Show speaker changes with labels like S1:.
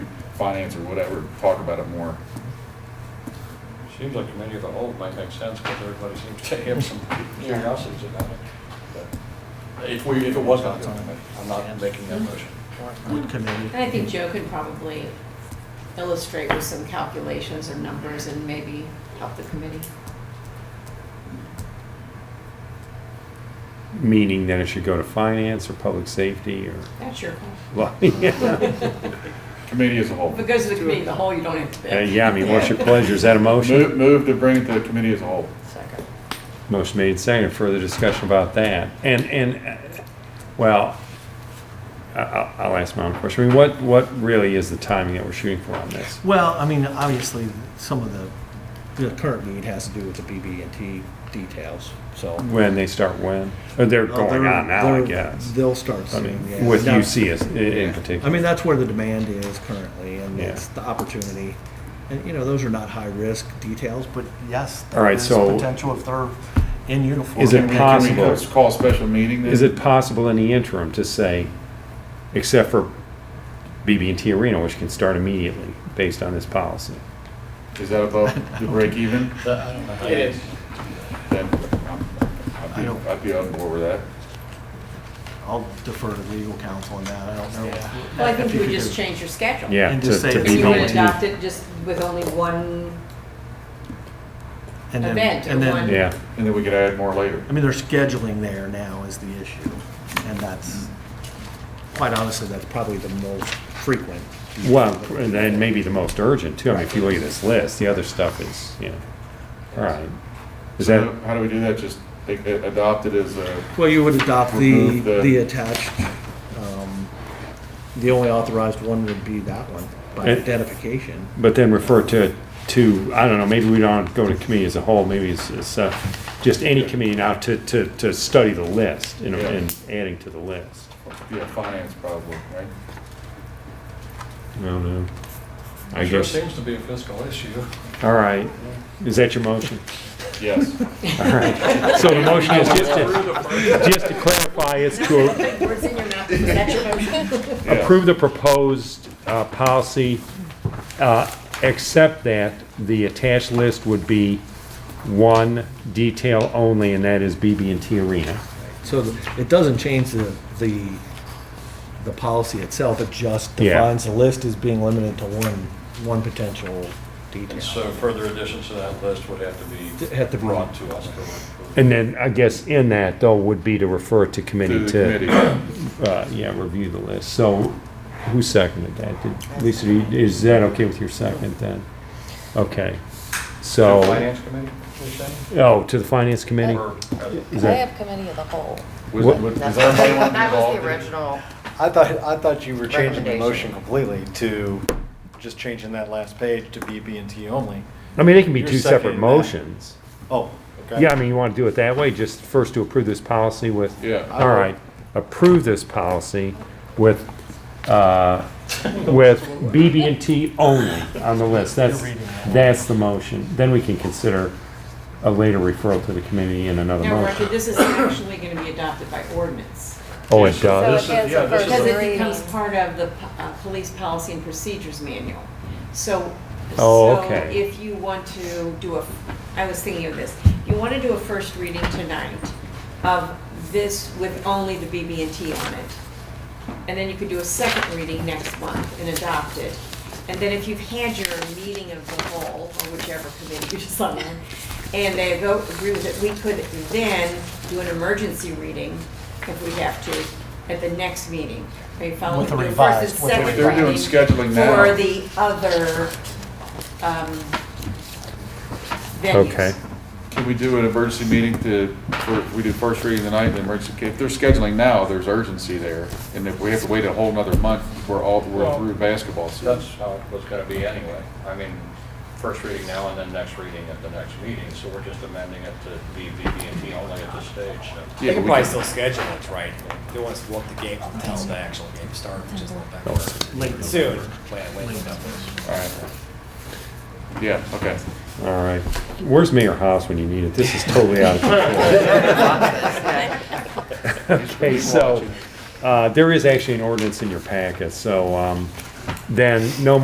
S1: finance or whatever, talk about it more.
S2: Seems like committee of the whole might make sense because everybody seems to have some curiosities about it. But If we, if it was not going to, be, I'm not making that motion.
S3: Wood committee.
S4: And I think Joe could probably illustrate with some calculations or numbers and maybe help the committee.
S5: Meaning that it should go to finance or public safety or,
S4: That's your call.
S5: well, yeah,
S1: Committee as a whole.
S4: If it goes to the committee, of the whole, you don't have to
S5: Uh,
S4: bid.
S5: yeah, I mean, what's your pleasure? Is that a
S1: Move,
S5: motion?
S1: move to bring it to the committee as a whole.
S4: Second.
S5: Motion made, second, further discussion about that. And, and, uh, well, I- I'll, I'll ask my own question. I mean, what, what really is the timing that we're shooting for on this?
S3: Well, I mean, obviously, some of the, the current need has to do with the BB&T details, so.
S5: When they start when? Or they're
S3: Uh,
S5: going
S3: they're-
S5: on now, I
S3: they're-
S5: guess.
S3: They'll start
S5: I
S3: soon, yeah.
S5: mean, with
S3: Now-
S5: UCS i- in
S3: Yeah.
S5: particular.
S3: I mean, that's where the demand is currently, and
S5: Yeah.
S3: it's the opportunity. And, you know, those are not high-risk details, but yes,
S5: All
S3: there
S5: right,
S3: is
S5: so-
S3: potential if they're in uniform.
S5: Is it
S3: and they can-
S1: Can we
S5: possible?
S1: just Call a special meeting then?
S5: Is it possible in the interim to say, except for BB&T Arena, which can start immediately based on this policy?
S1: Is that above the break even?
S2: It
S4: is.
S1: Then I'm- I'd
S3: I
S1: be,
S3: don't-
S1: I'd be on board with that.
S3: I'll defer to legal counsel on that, I don't know.
S4: Well, I think
S3: If
S4: you would
S3: could
S4: just
S3: do-
S4: change your schedule.
S5: Yeah,
S3: And
S5: to
S3: just say
S5: to
S3: it's
S4: If you would
S3: going to-
S5: BB&T.
S4: adopt it just with only one,
S3: and then-
S4: event or
S3: and then-
S4: one-
S5: Yeah,
S1: And then we could add more later.
S3: I mean, their scheduling there now is the issue, and that's, quite honestly, that's probably the most frequent.
S5: well, and then maybe the most urgent too. I mean, if you look at this list, the other stuff is, you know, all right. Is
S1: So
S5: that,
S1: how- How do we do that? Just a- a- adopt it as a,
S3: Well, you would adopt the,
S1: Remove the-
S3: the attached, um, the only authorized one would be that one, by
S5: And-
S3: identification.
S5: but then refer to, to, I don't know, maybe we don't go to committee as a whole, maybe it's, it's, uh, just any committee now to, to, to study the list you know,
S1: Yeah.
S5: and adding to the list.
S1: yeah, finance probably, right?
S5: I don't know. I
S2: Sure
S5: guess,
S2: seems to be a fiscal issue.
S5: all right. Is that your motion?
S1: Yes.
S5: All right. So the motion is just to, just to clarify, it's to
S4: big words in your mouth, is that your motion?
S1: Yeah.
S5: approve the proposed uh, policy, uh, except that the attached list would be one detail only, and that is BB&T Arena.
S3: So the- it doesn't change the, the, the policy itself, it just
S5: Yeah.
S3: defines the list as being limited to one, one potential
S2: And
S3: detail. Um,
S2: so further additions to that list would have to
S3: Have to
S2: be
S3: be-
S2: brought to us. for-
S5: And then, I guess in that, though, would be to refer to
S1: To
S5: committee
S1: the
S5: to,
S1: committee.
S5: uh, yeah, review the list. So who seconded that? Did- Lisa, do you- is that okay with your second then? Okay, so.
S6: Oh.
S2: The Finance committee, you're saying?
S5: Oh, to the finance committee?
S2: Or, uh,
S5: Is
S7: I
S5: that-
S7: have committee of the whole.
S1: Was-
S5: What-
S1: was- Does everybody want to be
S7: That was
S1: involved?
S7: the original.
S6: I thought, I thought you were changing the
S7: Recommendation.
S6: motion completely to just changing that last page to BB&T only.
S5: I mean, they can be
S6: You're
S5: two separate
S6: seconding that.
S5: motions.
S6: Oh, okay.
S5: Yeah, I mean, you want to do it that way, just first to approve this policy with.
S1: Yeah.
S5: All right, approve this policy with, uh, with BB&T only on the list. That's, that's the motion. Then we can consider a later referral to the committee in another
S4: Now, Roger,
S5: motion.
S4: this is actually gonna be adopted by ordinance.
S5: Oh, it
S7: So
S5: does?
S7: it
S2: is-
S7: has
S2: yeah,
S7: the
S2: this is a-
S7: first
S4: Because it
S7: reading.
S4: becomes part of the po- uh, police policy and procedures manual. So,
S5: Oh,
S4: so
S5: okay.
S4: if you want to do a, I was thinking of this, you want to do a first reading tonight of this with only the BB&T on it. And then you could do a second reading next month and adopt it. And then if you've had your meeting of the whole, or whichever committee you decide on, and they go agree with it, we could then do an emergency reading if we have to at the next meeting. Are you following?
S3: With a
S4: Do first and
S3: revised- with a-
S4: second
S1: They're doing
S4: reading
S1: scheduling now.
S4: For the other, um, venues.
S5: Okay.
S1: Can we do an emergency meeting to, for- we do first reading tonight, then emergency, if they're scheduling now, there's urgency there. And if we have to wait a whole nother month, we're all, we're
S2: Well,
S1: through basketball season.
S2: That's how it was going to be anyway. I mean, first reading now and then next reading at the next meeting, so we're just amending it to be BB&T only at this stage, so.
S1: Yeah,
S8: They
S1: we
S8: can probably
S1: can-
S8: still schedule it, right? They want us to walk the game until the actual game starts, which is a little
S1: Oh.
S3: Late.
S8: backwards. Soon, plan, wait, wait, wait.
S1: All right. Yeah, okay.
S5: All right. Where's Mayor House when you need it? This is totally out of control. Okay, so, uh, there is actually an ordinance in your packet, so, um, then no